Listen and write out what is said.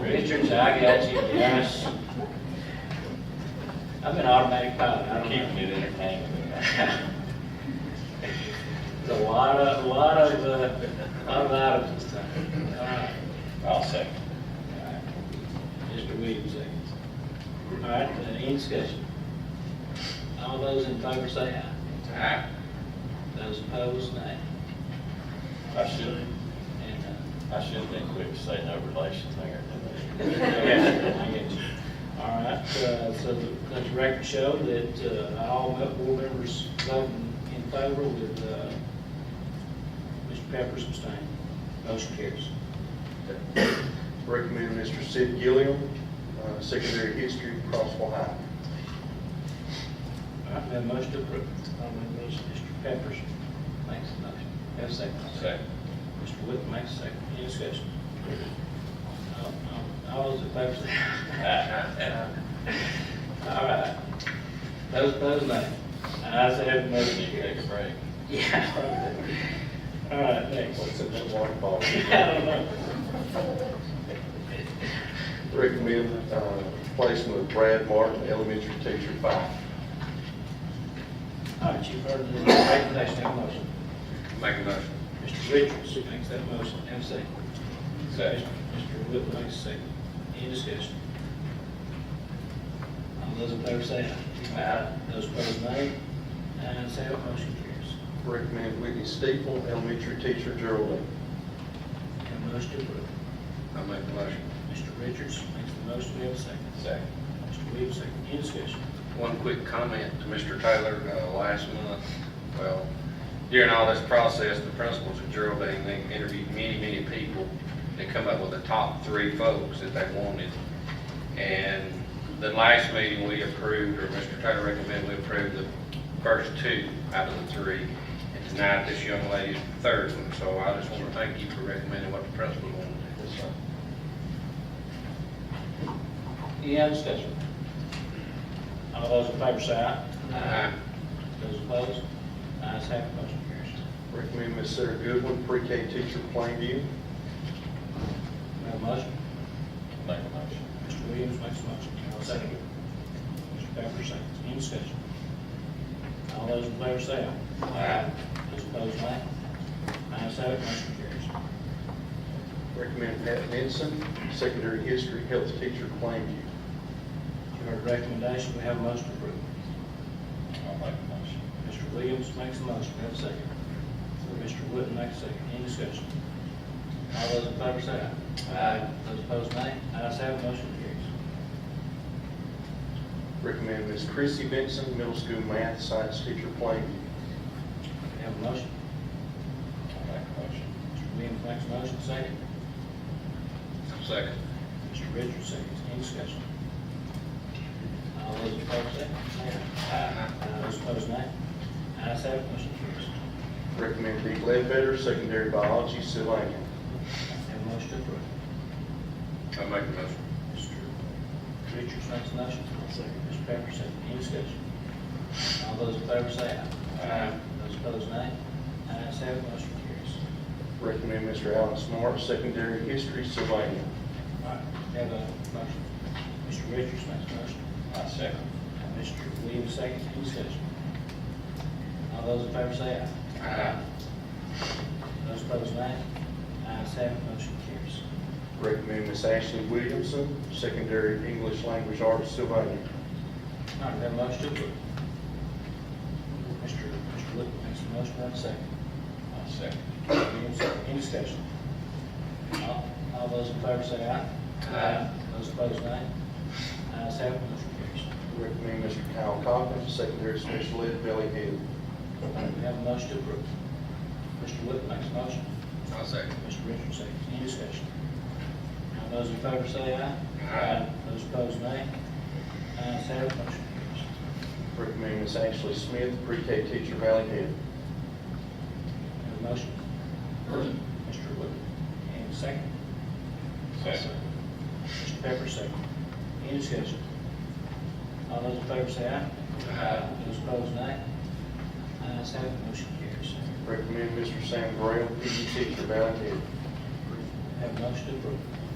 Richard Zagacki, yes. I'm an automatic pilot, I don't know. Keeping it entertaining. It's a lot of, a lot of, uh, lot of items this time. All right. I'll second. All right. Mr. Williams, seconds. All right, uh, any discussion? All those in favor say aye. Aye. Those opposed, nay. I should, And, uh, I should have been quick to say no relation there. didn't I? I get you. All right, uh, so let the record show that uh, all board members voting in favor with uh, Mr. Pepper's abstaining. Motion carries. Recommend Mr. Sid Gilliam, uh, secondary history, Crossville High. All right, have a motion to approve. I'll make motion. Mr. Pepper's makes a motion. Have a second. Second. Mr. Wood makes a second. Any discussion? All- all- All those in favor say aye. All right. Those opposed, nay. Ayes have, it, motion Need to carries. take a break. Yeah. All right, thanks. What's in that water bottle? I don't know. Recommend uh, placement of Brad Martin, elementary teacher, five. All right, you've heard the recommendation, have a motion. Make a motion. Mr. Richards makes that motion, have a second. Second. Mr. Wood makes a second. Any discussion? All those in favor say aye. Aye. Those opposed, nay. Ayes have, it, motion carries. Recommend Whitney Steeple, elementary teacher, Geraldine. Have a motion to approve. I'll make a motion. Mr. Richards makes the motion, we have a second. Second. Mr. Williams, second. Any discussion? One quick comment to Mr. Taylor, uh, last month, well, during all this process, the principals at Geraldine, they interviewed many, many people and come up with the top three folks that they wanted. And the last meeting, we approved, or Mr. Taylor recommended we approve the first two out of the three. And tonight, this young lady is the third one, so I just want to thank you for recommending what the principal wanted. Any other discussion? All those in favor say aye. Aye. Those opposed? Ayes have, it, motion carries. Recommend Miss Sarah Goodwin, pre-K teacher, Plainview. We have a motion. Make a motion. Mr. Williams makes a motion. I'll second it. Mr. Pepper seconds. Any discussion? All those in favor say aye. Aye. Those opposed, nay. Ayes have, it, motion carries. Recommend Pat Benson, secondary history, health teacher, Plainview. You heard the recommendation, we have a motion to approve. I'll make a motion. Mr. Williams makes a motion, we have a second. Mr. Wood makes a second. Any discussion? All those in favor say aye. Aye. Those opposed, nay. Ayes have, it, motion carries. Recommend Miss Chrissy Benson, middle school math science teacher, Plainview. We have a motion. I'll make a motion. Mr. Williams makes a motion, second. Second. Mr. Richards, seconds. Any discussion? All those in favor say aye. Aye. Those opposed, nay. Ayes have, it, motion carries. Recommend Dee Ledbetter, secondary biology, Sylvania. Have a motion to approve. I'll make the motion. Mr. Richards makes a motion. Second. Mr. Pepper, second. Any discussion? All those in favor say aye. Aye. Those opposed, nay. Ayes have, it, motion carries. Recommend Mr. Alan Smart, secondary history, Sylvania. All right, have a motion. Mr. Richards makes a motion. I second. Mr. Williams, second. Any discussion? All those in favor say aye. Aye. Those opposed, nay. Ayes have, it, motion carries. Recommend Miss Ashley Williamson, secondary English language arts, Sylvania. All right, have a motion to approve. Mr. Mr. Wood makes a motion, have a second. I'll second. Williams, second. Any discussion? All all those in favor say aye. Aye. Those opposed, nay. Ayes have, it, motion carries. Recommend Mr. Kyle Cochran, secondary special ed, Valley Head. We have a motion to approve. Mr. Wood makes a motion. I'll second. Mr. Richards, second. Any discussion? All those in favor say aye. Aye. Those opposed, nay. Ayes have, it, motion carries. Recommend Miss Ashley Smith, pre-K teacher, Valley Head. Have a motion? Mr. Wood, and second? Second. Mr. Pepper, second. Any discussion? All those in favor say aye. Aye. Those opposed, nay. Ayes have, it, motion carries. Recommend Mr. Sam Graham, PE teacher, E Valley Head. Have a motion to approve.